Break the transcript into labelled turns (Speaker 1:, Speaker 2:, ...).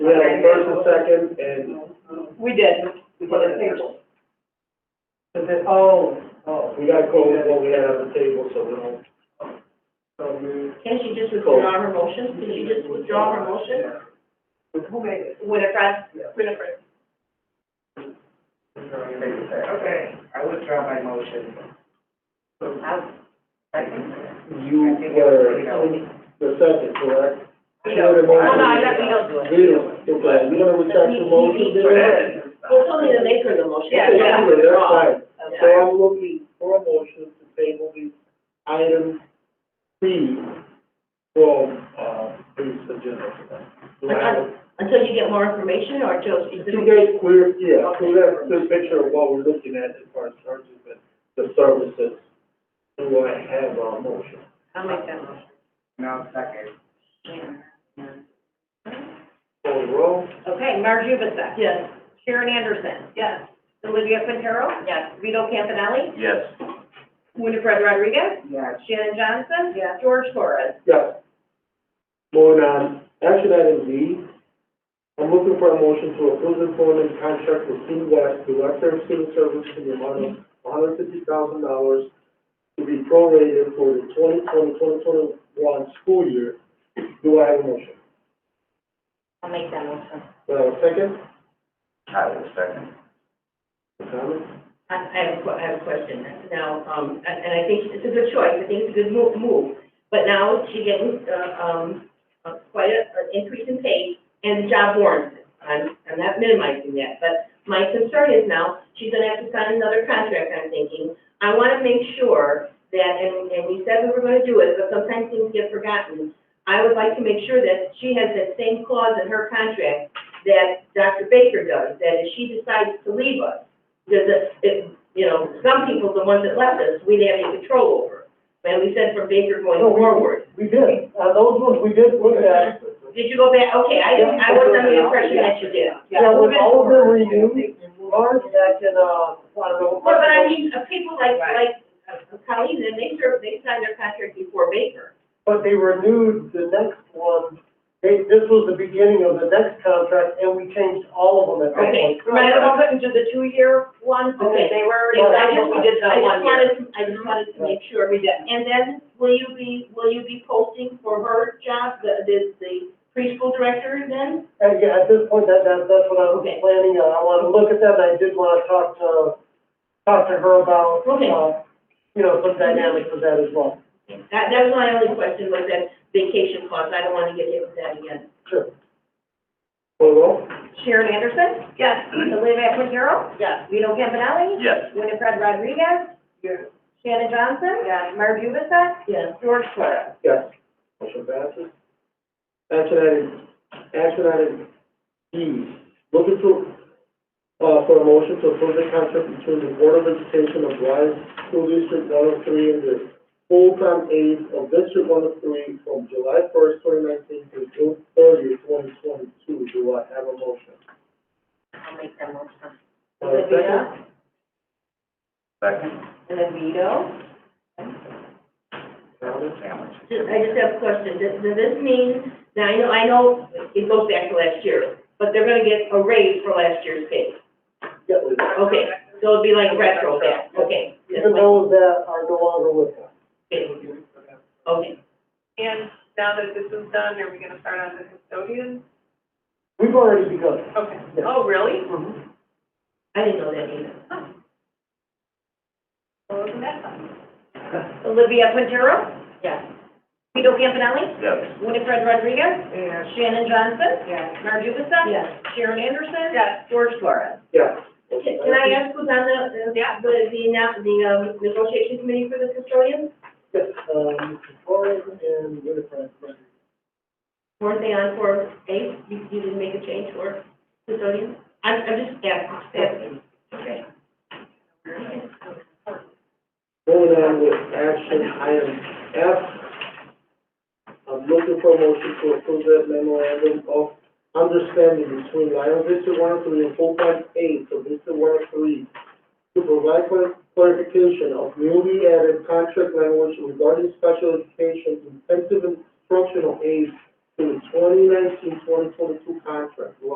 Speaker 1: second, and,
Speaker 2: We did, we
Speaker 1: put
Speaker 2: did
Speaker 1: it
Speaker 2: a
Speaker 1: there.
Speaker 2: table.
Speaker 3: Oh, oh,
Speaker 1: we got cold with what we had on the table, so we don't.
Speaker 3: so moved.
Speaker 4: Can she just withdraw her motion? Can she just withdraw her motion?
Speaker 3: Who made it?
Speaker 4: Winifred?
Speaker 3: Yeah.
Speaker 4: Winifred.
Speaker 3: Okay, I withdraw my motion.
Speaker 1: You were the second, correct? She made a
Speaker 4: Oh, no,
Speaker 1: motion.
Speaker 4: I don't, we don't do it.
Speaker 1: We don't, okay, you wanna retract the motion, then?
Speaker 4: Well, tell me to make her the motion.
Speaker 2: Yeah,
Speaker 1: Okay,
Speaker 2: yeah.
Speaker 1: anyway, That's fine, so
Speaker 4: Okay.
Speaker 1: I'm looking for a motion to table the item C from, uh, this agenda. tonight. Do I have a-
Speaker 4: Until you get more information or till she's.
Speaker 1: You guys clear, yeah, clear that, clear picture of what we're looking at as far as charges and the services. And what I have on motion.
Speaker 4: I'll make that motion.
Speaker 3: No, second.
Speaker 1: Call the roll.
Speaker 2: Okay, Marge Jubicek.
Speaker 4: Yes.
Speaker 2: Sharon Anderson. Yes. Olivia Quintero.
Speaker 4: Yes.
Speaker 2: Vito Campanelli.
Speaker 5: Yes.
Speaker 2: Winifred Rodriguez.
Speaker 3: Yes.
Speaker 2: Shannon Johnson. Yes. George Torres.
Speaker 1: Yes. Moving on, action item D. I'm looking for a motion to approve employment contract with Steve West, Director of Civil Service, in the amount of one hundred fifty thousand dollars to be prorated for the 2020-2021 school year. Do I have a motion?
Speaker 4: I'll make that motion.
Speaker 1: Do I have a second?
Speaker 5: I will second.
Speaker 1: Comments?
Speaker 4: I, I have a que- I have a question now, um, and, and I think it's a good choice, I think it's a good move, move. But now she's getting, uh, um, uh, quite a, an increase in pay and the job warrants. it. I'm, I'm not minimizing that, but my concern is now, she's gonna have to sign another contract, I'm thinking. I wanna make sure that, and, and we said we were gonna do it, but sometimes things get forgotten. I would like to make sure that she has that same clause in her contract that Dr. Baker does, that if she decides to leave us, there's a, it, you know, some people, the ones that left us, we didn't have any control over. And we said from Baker going
Speaker 1: No, we-
Speaker 4: forward.
Speaker 1: We did, uh, those ones we did look at,
Speaker 4: Did you go back? Okay, I didn't, I was under the impression that you did.
Speaker 1: yeah, with all the renewed, Mark, that can, uh, I don't know.
Speaker 4: Well, but I mean, uh, people like, like uh, Colleen, and they served, they signed their contract before Baker.
Speaker 1: But they renewed the next one, they, this was the beginning of the next contract, and we changed all of them at that point.
Speaker 4: Okay.
Speaker 2: Remember, I couldn't do the two-year ones because
Speaker 4: Okay.
Speaker 2: they were already,
Speaker 4: Well,
Speaker 2: I just, we did the
Speaker 4: I
Speaker 2: one
Speaker 4: just
Speaker 2: year.
Speaker 4: wanted, to- I just wanted to make sure.
Speaker 2: We did.
Speaker 4: And then, will you be, will you be posting for her job, the, the- the preschool director then?
Speaker 1: And yeah, at this point, that, that, that's what I was
Speaker 4: Okay.
Speaker 1: planning, on. I wanna look at that, and I did wanna talk to, talk to her about,
Speaker 4: Okay.
Speaker 1: uh, you know, some dynamics of that as well.
Speaker 4: That, that was my only question, was that vacation clause. I don't want to get hit with that again.
Speaker 1: Sure. Well,
Speaker 2: Sharon Anderson. Yes. Olivia Quintero.
Speaker 4: Yes.
Speaker 2: Vito Campanelli.
Speaker 5: Yes.
Speaker 2: Winifred Rodriguez.
Speaker 1: Yes.
Speaker 2: Shannon Johnson. Yes. Marge Jubicek.
Speaker 4: Yes.
Speaker 2: George Torres.
Speaker 1: Yes. Motion passes. Action item, action item E, looking to, uh, for a motion to approve the contract between the Board of Education of Wise School District one oh three and the full-time aides of District one oh three from July first, twenty nineteen to June thirtieth, twenty twenty-two. Do I have a motion?
Speaker 4: I'll make that motion.
Speaker 1: Uh, second?
Speaker 5: Second.
Speaker 2: Vito.
Speaker 1: Comments?
Speaker 5: Sandwich.
Speaker 4: Just, I just have a question, does, does this mean, now, I know, I know it goes back to last year, but they're gonna get a raise for last year's pay,
Speaker 1: Yeah, we-
Speaker 4: okay, so it'd be like retro back, okay. that's
Speaker 1: Even those that are no longer with us.
Speaker 4: my- Okay,
Speaker 6: And now that this is done, are we gonna start on the custodian?
Speaker 1: We've already begun.
Speaker 6: Okay.
Speaker 1: Yeah.
Speaker 6: Oh, really?
Speaker 4: I didn't know that either.
Speaker 6: Well, isn't that fun?
Speaker 2: Olivia Quintero.
Speaker 4: Yeah.
Speaker 2: Vito Campanelli.
Speaker 5: Yes.
Speaker 2: Winifred Rodriguez.
Speaker 6: Yeah.
Speaker 2: Shannon Johnson.
Speaker 6: Yeah.
Speaker 2: Marge Jubicek.
Speaker 4: Yeah.
Speaker 2: Sharon Anderson.
Speaker 6: Yes.
Speaker 2: George Torres.
Speaker 1: Yeah.
Speaker 4: Can can I ask who's on the, uh,
Speaker 6: Yeah.
Speaker 4: the, the, annou- the, um, negotiation committee for the custodian?
Speaker 1: Yes, uh, Mr. Torres and Winifred Rodriguez.
Speaker 4: Weren't they on for eight, you, you didn't make a change for custodian? I'm, I'm just asking, asking. Okay.
Speaker 1: Moving on with action item F. I'm looking for a motion to approve that memorandum of understanding between Lionel District one oh three and full-time aides of District one oh three to provide clar- clarification of newly added contract language regarding special education intensive instructional aids to the 2019-2022 contract.